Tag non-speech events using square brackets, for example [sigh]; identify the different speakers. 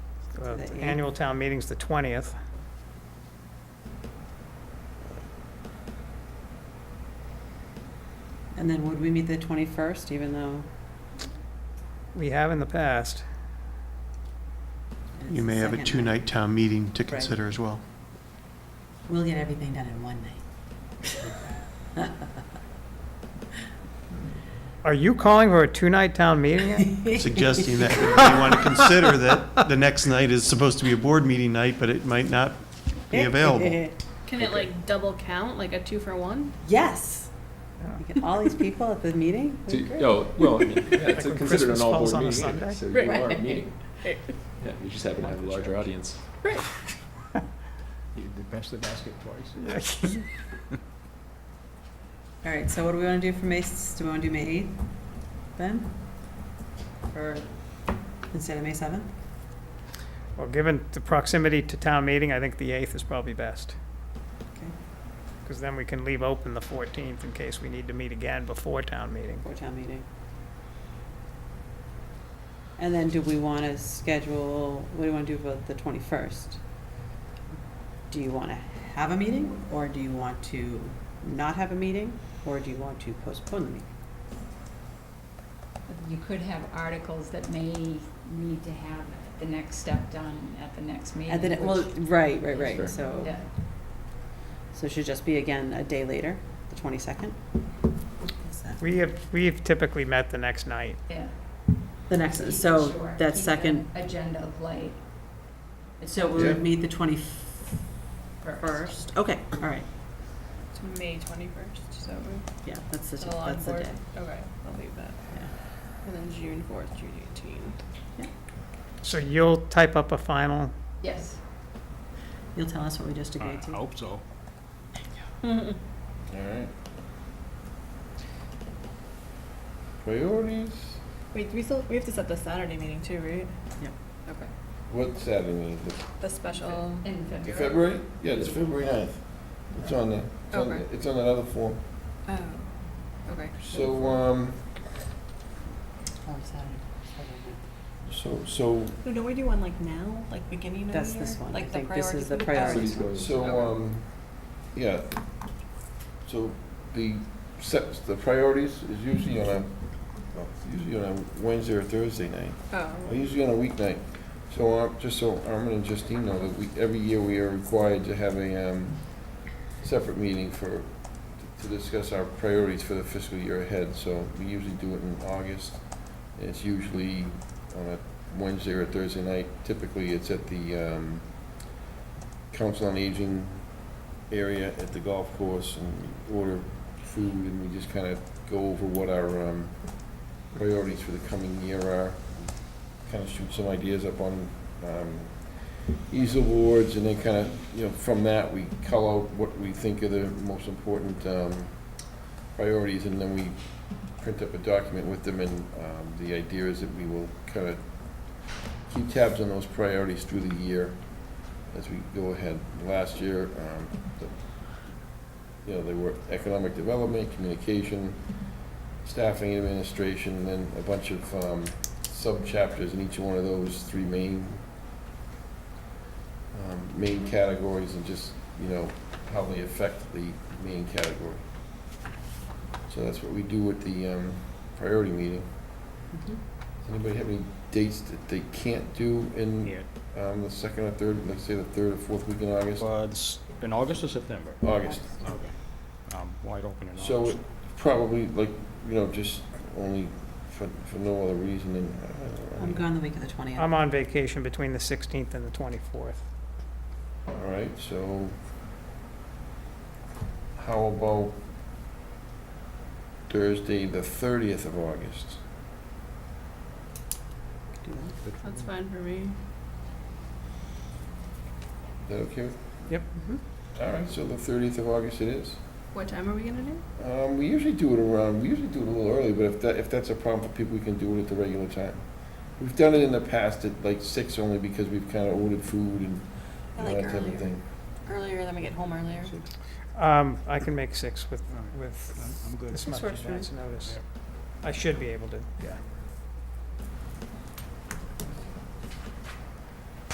Speaker 1: Uh,
Speaker 2: The eighth.
Speaker 1: Annual town meeting's the 20th.
Speaker 2: And then would we meet the 21st, even though?
Speaker 1: We have in the past.
Speaker 2: it's
Speaker 3: You may
Speaker 2: the
Speaker 3: have a
Speaker 2: second
Speaker 3: two-night town meeting to consider as well.
Speaker 2: We'll get everything done in one night.
Speaker 1: Are you calling for a two-night town meeting? yet?
Speaker 3: Suggesting that you want to consider that the next night is supposed to be a board meeting night, but it might not
Speaker 2: [laughs]
Speaker 3: be available.
Speaker 4: Can it like double count, like a two for one?
Speaker 2: Yes.
Speaker 1: Yeah.
Speaker 2: You get all these people at the meeting?
Speaker 5: So,
Speaker 2: Great.
Speaker 5: no, well, I mean, yeah, it's
Speaker 1: when
Speaker 5: considered
Speaker 1: Christmas
Speaker 5: an all-board
Speaker 1: falls on a
Speaker 5: meeting, anyway,
Speaker 1: Sunday.
Speaker 5: so you
Speaker 4: Right.
Speaker 5: are a
Speaker 6: [laughs]
Speaker 5: meeting. Yeah, you just happen to have a larger audience.
Speaker 6: You did best the basket twice.
Speaker 2: All right, so what do we want to do for May, s- do we want to do May 8th then? Or instead of May 7th?
Speaker 1: [laughs] Well, given the proximity to town meeting, I think the 8th is probably best.
Speaker 2: Okay.
Speaker 1: Because then we can leave open the 14th in case we need to meet again before town meeting.
Speaker 2: For town meeting. And then do we want to schedule, what do you want to do about the 21st? Do you want to have a meeting, or do you want to not have a meeting, or do you want to postpone the meeting?
Speaker 7: You could have articles that may need to have the next step done at the next meeting.
Speaker 2: And then, it- well,
Speaker 7: which-
Speaker 2: right, right, right,
Speaker 5: Sure.
Speaker 2: so,
Speaker 7: Yeah.
Speaker 2: so it should just be again a day later, the 22nd? Is that-
Speaker 1: We have, we've typically met the next night.
Speaker 7: yeah.
Speaker 2: The next,
Speaker 7: Sure,
Speaker 2: so that
Speaker 7: keep
Speaker 2: second,
Speaker 7: the Agenda light
Speaker 2: so we
Speaker 5: Yeah.
Speaker 2: would meet the 21st,
Speaker 7: first.
Speaker 2: okay, all right,
Speaker 4: It's May twenty-first, so
Speaker 2: yeah, that's the,
Speaker 4: it's all on
Speaker 2: that's the
Speaker 4: board.
Speaker 2: day.
Speaker 4: Okay, I'll leave that. And then June fourth, June eighteenth.
Speaker 1: So you'll type up a final,
Speaker 7: Yes.
Speaker 2: You'll tell us what we just agreed
Speaker 6: I
Speaker 2: to?
Speaker 6: hope so.
Speaker 8: All right. Priorities?
Speaker 4: Wait, do we still, we have to set the Saturday meeting too, right?
Speaker 2: Yep.
Speaker 4: Okay.
Speaker 8: What Saturday? The-
Speaker 4: The special,
Speaker 7: In February.
Speaker 8: February? Yeah, it's February ninth. It's on the, it's on,
Speaker 4: Okay.
Speaker 8: the- it's on another form.
Speaker 4: oh, okay.
Speaker 8: So,
Speaker 2: uh,
Speaker 8: um,
Speaker 2: Oh, Saturday. Saturday.
Speaker 8: so, so,
Speaker 4: No, don't we do one like now, like beginning of the year?
Speaker 2: That's this one. I
Speaker 4: Like the
Speaker 2: think this is
Speaker 4: priorities
Speaker 2: the
Speaker 4: meeting?
Speaker 2: priority.
Speaker 5: City's going-
Speaker 8: so, um, yeah. So the sets, the priorities is usually on a, well, it's usually on a Wednesday or Thursday night.
Speaker 4: Oh,
Speaker 8: Well, Usually on a weeknight. So, uh, just so Armin and Justine know that we, every year we are required to have a, um, separate meeting for, to discuss our priorities for the fiscal year ahead. So we usually do it in August. and It's usually on a Wednesday or Thursday night. Typically, it's at the, um, Council on Aging area at the golf course and we order food and we just kind of go over what our, um, priorities for the coming year are kind of shoot some ideas up on um, easel boards, and then kind of, you know, from that, we cull out what we think are the most important um, priorities, and then we print up a document with them, and um, the idea is that we will kind of keep tabs on those priorities through the year as we go ahead. Last year, um, the- you know, they were economic development, communication, staffing administration, and then a bunch of um, sub-chapters in each one of those three main, um, main categories and just, you know, how they affect the main category. So that's what we do at the um, priority meeting.
Speaker 2: Mhm.
Speaker 8: Does anybody have any dates that they can't do in
Speaker 6: Yeah.
Speaker 8: um, the second or third, like say the third or fourth week in August?
Speaker 6: Well, it's in August or September?
Speaker 8: August.
Speaker 4: Oh,
Speaker 6: Okay. Um, wide open in August.
Speaker 8: So it probably like, you know, just only for, for no other reason than. uh, I don't
Speaker 2: I'm
Speaker 8: know.
Speaker 2: gone the week of the 20th.
Speaker 1: I'm on vacation between the 16th and the 24th.
Speaker 8: All right, so how about Thursday, the 30th of August?
Speaker 2: Do that.
Speaker 4: that's fine for me.
Speaker 8: Is that okay? with-
Speaker 2: Mhm.
Speaker 4: Mm-hmm.
Speaker 8: All right, so the 30th of August it is.
Speaker 4: What time are we gonna do?
Speaker 8: Um, We usually do it around, we usually do it a little early, but if that, if that's a problem for people, we can do it at the regular time. We've done it in the past at like six only because we've kind of ordered food and
Speaker 4: I
Speaker 8: all
Speaker 4: like
Speaker 8: that type
Speaker 4: earlier.
Speaker 8: of thing.
Speaker 4: Earlier, then we get home earlier.
Speaker 1: Um, I can make six with, with
Speaker 6: I'm- I'm good.
Speaker 1: this
Speaker 4: This
Speaker 1: much
Speaker 4: works for me.
Speaker 1: advance notice. I should be able to, yeah.